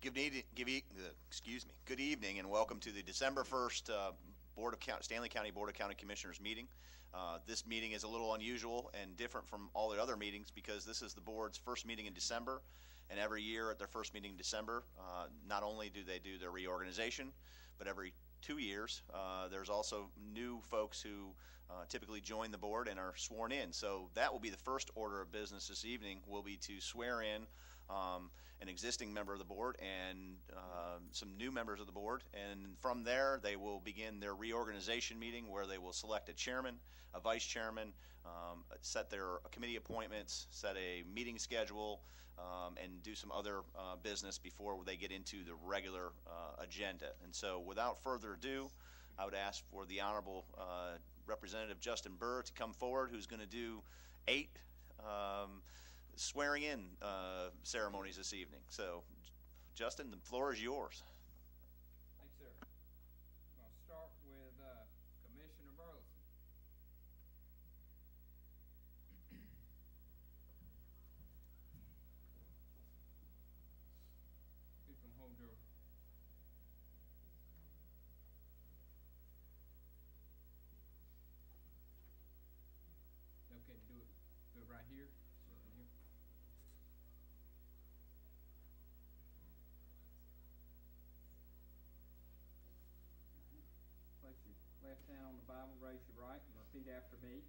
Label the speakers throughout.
Speaker 1: Good evening, give e- uh, excuse me. Good evening and welcome to the December 1st uh, Board of County, Stanley County Board of County Commissioners meeting. Uh, This meeting is a little unusual and different from all the other meetings because this is the board's first meeting in December. And every year at their first meeting in December, uh, not only do they do their reorganization, but every two years, uh, there's also new folks who uh, typically join the board and are sworn in. So that will be the first order of business this evening, will be to swear in um, an existing member of the board and um, some new members of the board. And from there, they will begin their reorganization meeting where they will select a chairman, a vice chairman, um, set their committee appointments, set a meeting schedule, um, and do some other uh, business before they get into the regular uh, agenda. And so without further ado, I would ask for the Honorable uh, Representative Justin Burr to come forward, who's going to do eight um, swearing-in uh, ceremonies this evening. So, J- Justin, the floor is yours.
Speaker 2: Thanks, sir. I'm gonna start with, uh, Commissioner Burleson. You can hold your. Okay, do it, do it right here, so you- Place your left hand on the Bible, raise your right, and repeat after me.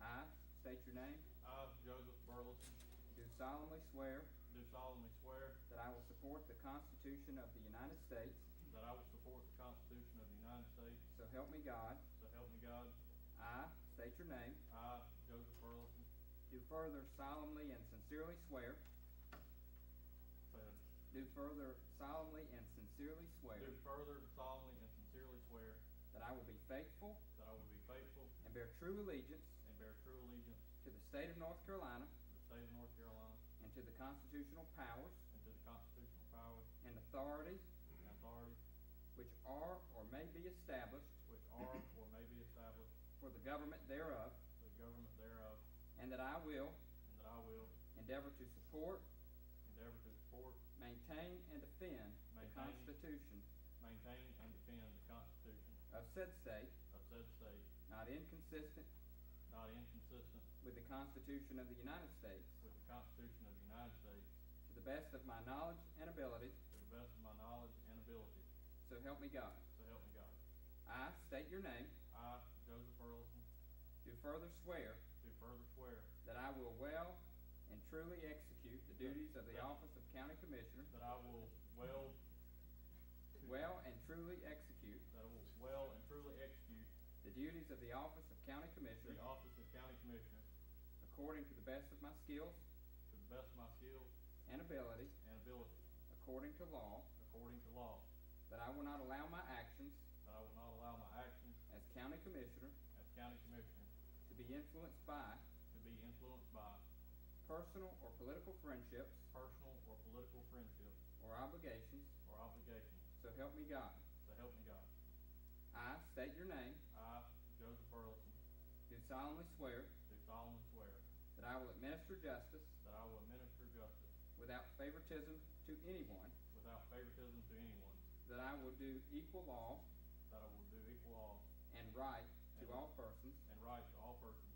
Speaker 2: I state your name,
Speaker 3: I, Joseph Burleson,
Speaker 2: do solemnly swear
Speaker 3: do solemnly swear
Speaker 2: that I will support the Constitution of the United States,
Speaker 3: that I will support the Constitution of the United States,
Speaker 2: so help me God.
Speaker 3: so help me God.
Speaker 2: I state your name,
Speaker 3: I, Joseph Burleson,
Speaker 2: do further solemnly and sincerely swear,
Speaker 3: said,
Speaker 2: do further solemnly and sincerely swear
Speaker 3: do further solemnly and sincerely swear
Speaker 2: that I will be faithful
Speaker 3: that I will be faithful
Speaker 2: and bear true allegiance
Speaker 3: and bear true allegiance
Speaker 2: to the state of North Carolina
Speaker 3: to the state of North Carolina
Speaker 2: and to the constitutional powers
Speaker 3: and to the constitutional powers
Speaker 2: and authorities
Speaker 3: and authorities
Speaker 2: which are or may be established
Speaker 3: which are or may be established
Speaker 2: for the government thereof,
Speaker 3: for the government thereof,
Speaker 2: and that I will
Speaker 3: and that I will
Speaker 2: Endeavor to support,
Speaker 3: endeavor to support,
Speaker 2: maintain, and defend the
Speaker 3: Maintain.
Speaker 2: Constitution
Speaker 3: maintain, and defend the Constitution
Speaker 2: of said state,
Speaker 3: of said state,
Speaker 2: not inconsistent
Speaker 3: not inconsistent
Speaker 2: with the Constitution of the United States,
Speaker 3: with the Constitution of the United States,
Speaker 2: to the best of my knowledge and ability,
Speaker 3: To the best of my knowledge and ability,
Speaker 2: so help me God.
Speaker 3: so help me God.
Speaker 2: I state your name,
Speaker 3: I, Joseph Burleson,
Speaker 2: do further swear
Speaker 3: do further swear
Speaker 2: that I will well and truly execute the duties of the office of County Commissioner,
Speaker 3: that I will well,
Speaker 2: well and truly execute
Speaker 3: that I will well and truly execute
Speaker 2: the duties of the office of County
Speaker 3: the
Speaker 2: Commissioner
Speaker 3: office of County Commissioner
Speaker 2: according to the best of my skills
Speaker 3: to the best of my skill
Speaker 2: and ability,
Speaker 3: and ability,
Speaker 2: according to law,
Speaker 3: according to law,
Speaker 2: that I will not allow my actions
Speaker 3: that I will not allow my actions
Speaker 2: as county commissioner
Speaker 3: as County Commissioner
Speaker 2: to be influenced by
Speaker 3: to be influenced by
Speaker 2: personal or political friendships
Speaker 3: personal or political friendships
Speaker 2: or obligations,
Speaker 3: or obligations,
Speaker 2: so help me God.
Speaker 3: so help me God.
Speaker 2: I state your name,
Speaker 3: I, Joseph Burleson,
Speaker 2: do solemnly swear
Speaker 3: do solemnly swear
Speaker 2: that I will administer justice
Speaker 3: that I will administer justice
Speaker 2: without favoritism to anyone,
Speaker 3: without favoritism to anyone,
Speaker 2: that I will do equal law
Speaker 3: That I will do equal law
Speaker 2: and right to all persons,
Speaker 3: and right to all persons.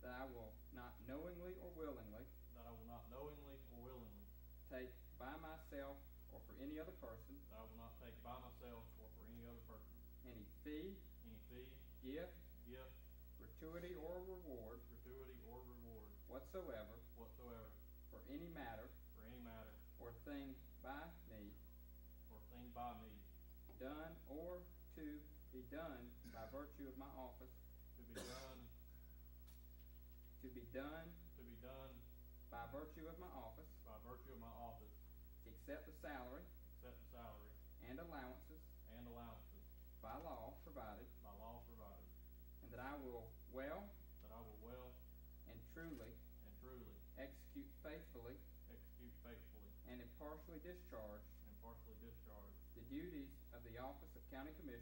Speaker 2: that I will not knowingly or willingly
Speaker 3: That I will not knowingly or willingly.
Speaker 2: take by myself or for any other person
Speaker 3: That I will not take by myself or for any other person.
Speaker 2: any fee,
Speaker 3: Any fee,
Speaker 2: gift,
Speaker 3: gift,
Speaker 2: gratuity, or reward
Speaker 3: gratuity, or reward
Speaker 2: whatsoever
Speaker 3: whatsoever
Speaker 2: for any matter
Speaker 3: for any matter
Speaker 2: or thing by me
Speaker 3: or thing by me
Speaker 2: done or to be done by virtue of my office,
Speaker 3: to be done,
Speaker 2: to be done
Speaker 3: to be done
Speaker 2: by virtue of my office,
Speaker 3: by virtue of my office,
Speaker 2: except the salary
Speaker 3: except the salary
Speaker 2: and allowances
Speaker 3: and allowances
Speaker 2: by law provided,
Speaker 3: by law provided.
Speaker 2: and that I will well
Speaker 3: That I will well
Speaker 2: and truly
Speaker 3: and truly
Speaker 2: execute faithfully
Speaker 3: execute faithfully
Speaker 2: and impartially discharge
Speaker 3: and partially discharge
Speaker 2: the duties of the office of County
Speaker 3: the